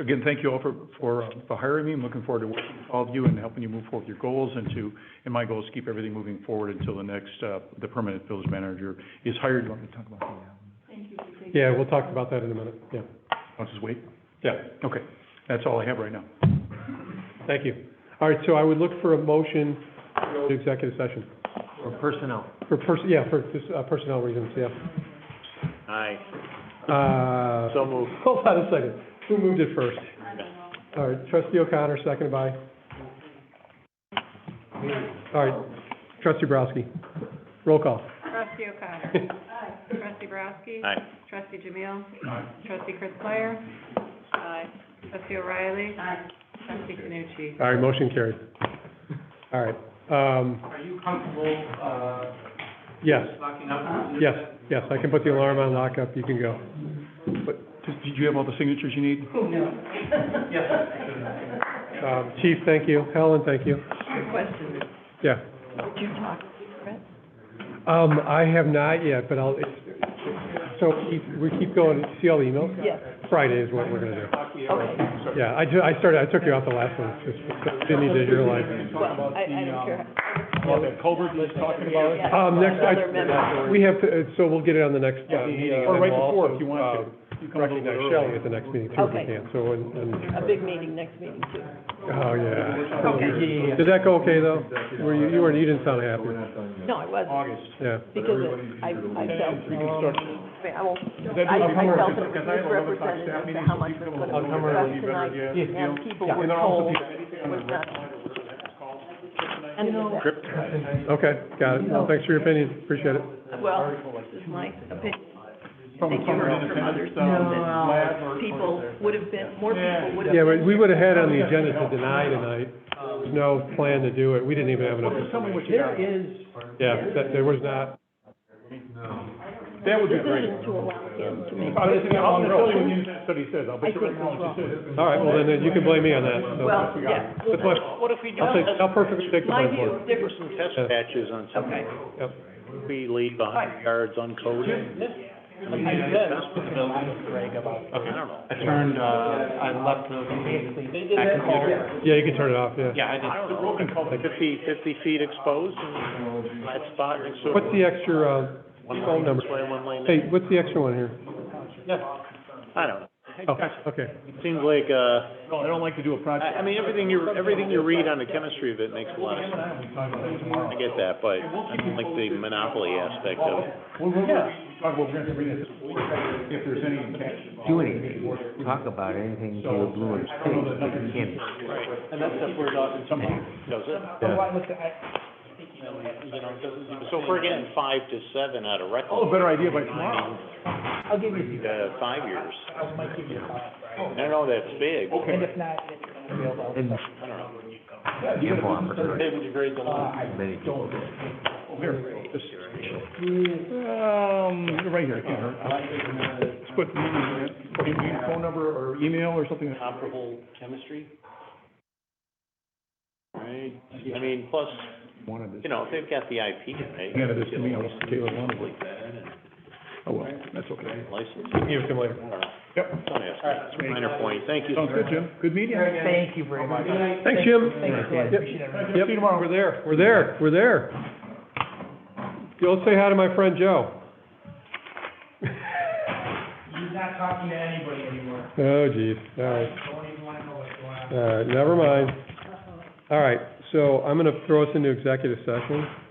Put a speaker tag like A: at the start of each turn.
A: Again, thank you all for, for, uh, for hiring me. I'm looking forward to working with all of you and helping you move forward with your goals and to, and my goal is to keep everything moving forward until the next, uh, the permanent village manager is hired. You want me to talk about the, um,
B: Yeah, we'll talk about that in a minute, yeah.
A: I'll just wait?
B: Yeah.
A: Okay, that's all I have right now.
B: Thank you. All right, so I would look for a motion to go to executive session.
C: Or personnel.
B: For person, yeah, for just, uh, personnel reasons, yeah.
C: Aye.
B: Uh,
C: So moved.
B: hold on a second. Who moved it first? All right, trustee O'Connor, second by? All right, trustee Browski. Roll call.
D: Trustee O'Connor. Trustee Borowski.
C: Aye.
D: Trustee Jamil. Trustee Chris Meyer. Aye. Trustee O'Reilly. Aye. Trustee Canucci.
B: All right, motion carried. All right, um,
E: Are you comfortable, uh,
B: yes,
E: locking up?
B: yes, yes, I can put the alarm on lockup, you can go.
A: But, did did you have all the signatures you need?
E: Yes.
B: Um, chief, thank you. Helen, thank you.
F: Question,
B: Yeah.
F: would you talk to Brett?
B: Um, I have not yet, but I'll, it's, so keep, we keep going, see all the emails?
F: Yes.
B: Friday is what we're gonna do.
F: Okay,
B: Yeah, I ju, I started, I took you off the last one, just, didn't need to realize.
F: well, I, I don't care.
C: Well, the culvert was talking about.
F: Yeah,
B: Um, next, I,
F: another member.
B: we have to, uh, so we'll get it on the next, uh, meeting.
A: Or right before, if you want
B: uh,
F: Uh,
A: to. You come a little bit
B: Recognize
A: early.
B: Shelley at the next meeting too, if we
F: Okay.
B: can, so, and, and,
F: A big meeting next meeting too.
B: oh, yeah.
E: Okay.
B: Did that go okay, though? Were you, you weren't, you didn't sound happy,
F: No, I wasn't,
A: August.
B: yeah.
F: because it- I, I felt, um, I mean, I won't,
A: That
F: I,
A: doesn't
F: I
A: work,
F: felt it
A: because I have
F: was
A: eleven o'clock
F: misrepresented
A: staff
F: as to
A: meeting,
F: how
A: so
F: much
A: you
F: was
A: come
F: put
A: a little
B: bit
F: in
B: early,
A: be better
F: tonight,
A: idea.
F: and people
B: Yeah,
F: were
B: and then also
F: told
B: if
F: it was not. And it was-
B: Okay, got it. Well, thanks for your opinion, appreciate it.
F: well, this is my opinion, I think you heard from others, too, that people would have been, more people would have
B: Yeah, but
F: been.
B: we would have had on the agenda to deny tonight, there's no plan to do it, we didn't even have enough.
A: Just tell me what you
E: There
A: got.
E: is,
B: Yeah, that, there was not,
A: That would be
F: This
A: great. Uh,
F: isn't to allow him to make.
A: I'm gonna tell you when you, that's what he says, I'll
F: I
A: bet you right
F: think
A: now what
F: it's
A: you said.
B: all right, well, then you can blame me on that. So,
F: Well, yeah.
B: That's my, I'll
C: What if we do
B: take, I'll perfectly take the
F: My
B: blame
F: view
B: for it.
F: is different.
C: some test patches on some,
F: Okay.
B: Yep.
C: we leave a hundred yards uncoated?
E: Greg, about,
C: I don't know.
E: I turned, uh, I left the meeting at computer.
B: Yeah, you can turn it off, yeah.
E: Yeah, I
C: I don't
E: did.
C: know, fifty, fifty feet exposed and flat spot next to it.
B: What's the extra, uh,
C: One
B: phone
C: lane
B: number?
C: this way, one lane
B: hey,
C: that-
B: what's the extra one here?
C: I don't know.
B: Oh, okay,
C: It seems like, uh,
A: No, I don't like to do a project.
C: I, I mean, everything you, everything you read on the chemistry of it makes a lot of sense. I get that, but I don't like the monopoly aspect of it.
A: Well, we'll, we'll talk about, we're gonna read it, if there's any catch.
G: do anything, talk about anything until the blue is pink, but you can't
C: And that's if we're talking something. Does it? So if we're getting five to seven out of
A: Oh,
C: Reclam,
A: better idea by tomorrow.
C: uh, five years.
B: Oh.
C: I don't know, that's big.
A: Okay.
G: and ample opportunity,
C: would you grade the
A: Ah.
C: lot?
G: many people.
A: Here, just. Um, right here, I can't hurt. Let's put, put your phone number or email or something.
C: Comparable chemistry? Right, I mean, plus, you know, if they've got the IP, right?
A: Yeah, this to me, I was Taylor Lawn.
C: Like that, and
A: Oh, well, that's okay.
C: license,
B: okay. Give it to him later.
C: I don't know.
A: Yep.
C: Somebody else. Minor point, thank you.
A: Sounds good, Jim. Good meeting.
G: Thank you
E: Oh
G: very much.
B: Thanks, Jim.
A: Yep.
B: Yep, we're there, we're there, we're there. Go say hi to my friend Joe.
E: He's not talking to anybody anymore.
B: Oh, geez, all right.
E: Don't even wanna know what's going on.
B: All right, never mind. All right, so I'm gonna throw us into executive session. Uh,